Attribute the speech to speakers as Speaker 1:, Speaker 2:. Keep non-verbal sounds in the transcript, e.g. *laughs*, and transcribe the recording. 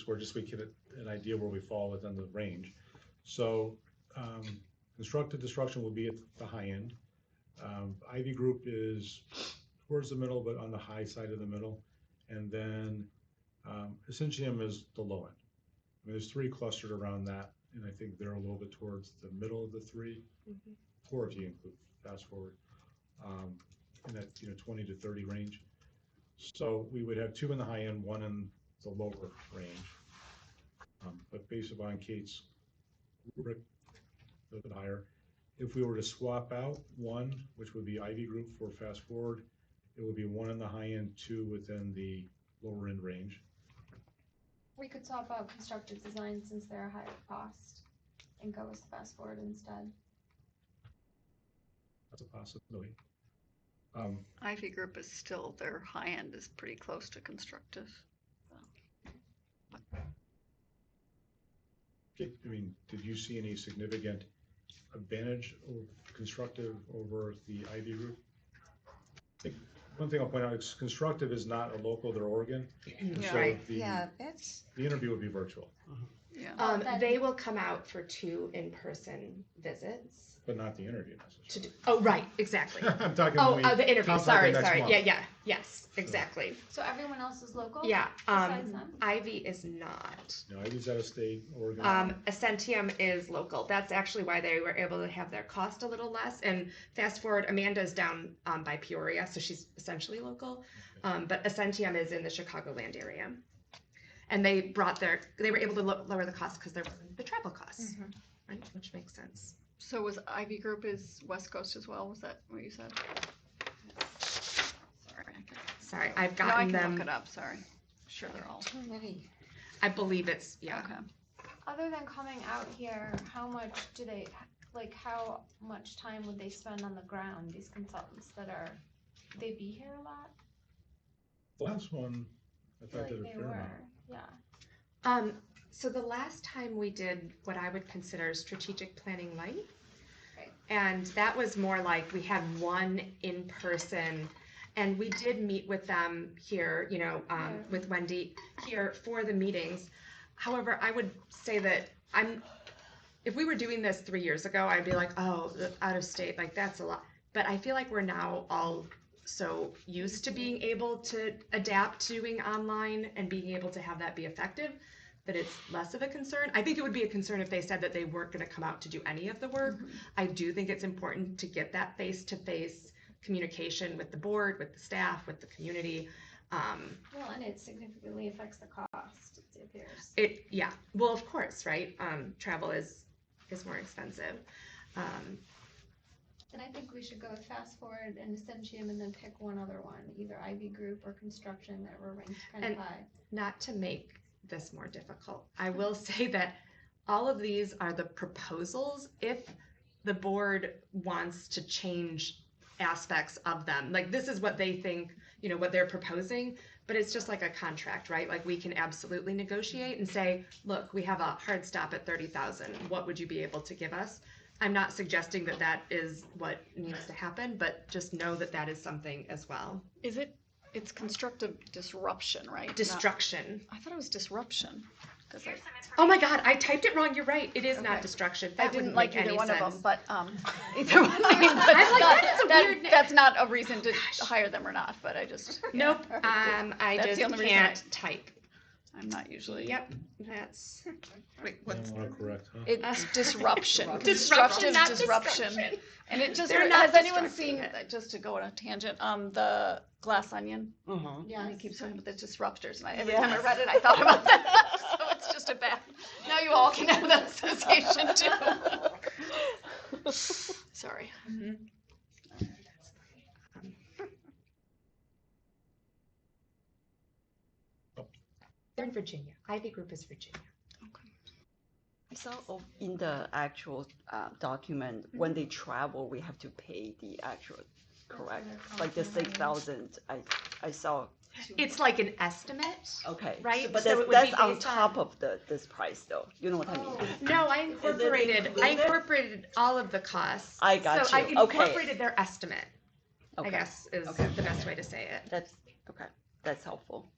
Speaker 1: score, just so we get an idea where we fall within the range. So um, constructive destruction will be at the high end. Um, Ivy group is towards the middle, but on the high side of the middle. And then um, Essentium is the low end. I mean, there's three clustered around that, and I think they're a little bit towards the middle of the three,
Speaker 2: Mhm.
Speaker 1: four if you include fast forward, um, in that, you know, twenty to thirty range. So we would have two in the high end, one in the lower range. Um, But based upon Kate's rubric, a little bit higher. If we were to swap out one, which would be Ivy Group for Fast Forward, it would be one in the high end, two within the lower end range.
Speaker 3: We could swap out constructive design since they're a higher cost and go with fast forward instead.
Speaker 1: That's a possibility. Um,
Speaker 4: Ivy Group is still, their high end is pretty close to constructive.
Speaker 1: Kate, I mean, did you see any significant advantage or constructive over the Ivy Group? I think One thing I'll point out is constructive is not a local, they're Oregon.
Speaker 4: Yeah.
Speaker 1: So
Speaker 2: Right,
Speaker 1: the-
Speaker 5: Yeah, that's,
Speaker 1: The interview would be virtual,
Speaker 4: Yeah,
Speaker 2: Um,
Speaker 3: Then-
Speaker 2: they will come out for two in-person visits.
Speaker 1: but not the interview
Speaker 2: To do,
Speaker 1: necessarily.
Speaker 2: oh, right,
Speaker 1: *laughs*
Speaker 2: exactly.
Speaker 1: I'm talking
Speaker 2: Oh,
Speaker 1: only
Speaker 2: uh, the interview,
Speaker 1: contact the
Speaker 2: sorry,
Speaker 1: next
Speaker 2: sorry.
Speaker 1: month.
Speaker 2: Yeah, yeah, yes, exactly.
Speaker 3: So everyone else is local?
Speaker 2: Yeah,
Speaker 3: Besides
Speaker 2: um,
Speaker 3: them?
Speaker 2: Ivy is not.
Speaker 1: No, I use out of state, Oregon.
Speaker 2: Um, Ascentium is local. That's actually why they were able to have their cost a little less. And fast forward, Amanda's down um, by Peoria, so she's essentially local. Um, but Ascentium is in the Chicagoland area. And they brought their, they were able to lo- lower the cost because there wasn't the travel costs, right? Which makes sense.
Speaker 4: so was Ivy Group is West Coast as well, was that what you said? Sorry, I can-
Speaker 2: Sorry, I've
Speaker 4: no, I
Speaker 2: gotten
Speaker 4: can look it
Speaker 2: them.
Speaker 4: up, sorry. Sure, they're all,
Speaker 5: too many.
Speaker 2: I believe it's, yeah.
Speaker 4: okay.
Speaker 3: Other than coming out here, how much do they, like, how much time would they spend on the ground, these consultants that are, they be here a lot?
Speaker 1: The last one, I
Speaker 3: I feel
Speaker 1: thought did a
Speaker 3: like they
Speaker 1: fair amount.
Speaker 3: were, yeah.
Speaker 2: Um, so the last time we did what I would consider strategic planning light.
Speaker 3: Right.
Speaker 2: And that was more like we had one in person and we did meet with them here, you know, um,
Speaker 3: Yeah.
Speaker 2: with Wendy here for the meetings. However, I would say that I'm, if we were doing this three years ago, I'd be like, oh, out of state, like that's a lot. But I feel like we're now all so used to being able to adapt to doing online and being able to have that be effective that it's less of a concern. I think it would be a concern if they said that they weren't going to come out to do any of the work. I do think it's important to get that face to face communication with the board, with the staff, with the community. Um,
Speaker 3: Well, and it significantly affects the cost, it appears.
Speaker 2: it yeah, well of course, right? Um, travel is is more expensive. Um,
Speaker 3: Then I think we should go with fast forward and Essentium and then pick one other one, either Ivy Group or construction that were ranked kind of
Speaker 2: And-
Speaker 3: high.
Speaker 2: not to make this more difficult, I will *laughs* say that all of these are the proposals if the board wants to change aspects of them. Like this is what they think, you know, what they're proposing, but it's just like a contract, right? Like we can absolutely negotiate and say, look, we have a hard stop at 30,000. What would you be able to give us? I'm not suggesting that that is what needs to happen, but just know that that is something as well.
Speaker 4: Is it, it's constructive disruption, right? Not-
Speaker 2: Destruction.
Speaker 4: I thought it was disruption. 'cause I-
Speaker 2: Oh my god, I typed it wrong. You're right. It is
Speaker 4: Okay.
Speaker 2: not destruction.
Speaker 4: I
Speaker 2: That
Speaker 4: didn't
Speaker 2: wouldn't
Speaker 4: like
Speaker 2: make
Speaker 4: either
Speaker 2: any
Speaker 4: one
Speaker 2: sense.
Speaker 4: of them, but,
Speaker 2: *laughs*
Speaker 4: um, *laughs* either one, I mean, but
Speaker 2: I'm like,
Speaker 4: not-
Speaker 2: that is a
Speaker 4: that-
Speaker 2: weird name.
Speaker 4: That's not a reason to hire them or not, but I just, *laughs* yeah,
Speaker 2: Nope. Um, I
Speaker 4: That's the
Speaker 2: just
Speaker 4: only reason I-
Speaker 2: can't type.
Speaker 4: I'm
Speaker 2: um,
Speaker 4: not usually.
Speaker 2: Yep. That's wait.
Speaker 1: I
Speaker 2: What's
Speaker 1: don't want to correct, huh?
Speaker 4: It's
Speaker 2: *laughs* disruption?
Speaker 4: disruption, constructive
Speaker 2: Not
Speaker 4: disruption.
Speaker 2: disruption.
Speaker 4: And it just,
Speaker 2: They're not
Speaker 4: has anyone seen, uh,
Speaker 2: destructive.
Speaker 4: just to go on a tangent, um, the glass onion?
Speaker 5: Uh-huh.
Speaker 3: Yeah.
Speaker 4: I keep talking about the disruptors and I, every time I read it, I thought about *laughs* that. So it's just a bad, now you all can have that association
Speaker 2: *laughs*
Speaker 4: too. *laughs* Sorry.
Speaker 2: They're in Virginia. Ivy Group is Virginia.
Speaker 5: So,
Speaker 6: Oh, in the actual uh, document, when they travel, we have to pay the actual, correct? Like the six thousand, I, I saw,
Speaker 2: It's like an estimate.
Speaker 6: okay. so-
Speaker 2: Right,
Speaker 6: But
Speaker 2: so it would
Speaker 6: that's,
Speaker 2: be
Speaker 6: that's on
Speaker 2: based
Speaker 6: top of the, this price though, you know what I mean?
Speaker 3: Oh.
Speaker 2: No, I incorporated. I
Speaker 6: included?
Speaker 2: incorporated all of the costs.
Speaker 6: I got
Speaker 2: so
Speaker 6: you.
Speaker 2: I
Speaker 6: Okay.
Speaker 2: incorporated their estimate. I
Speaker 6: Okay,
Speaker 2: guess is
Speaker 6: Okay.
Speaker 2: the best way to say it.
Speaker 6: That's, okay, that's helpful.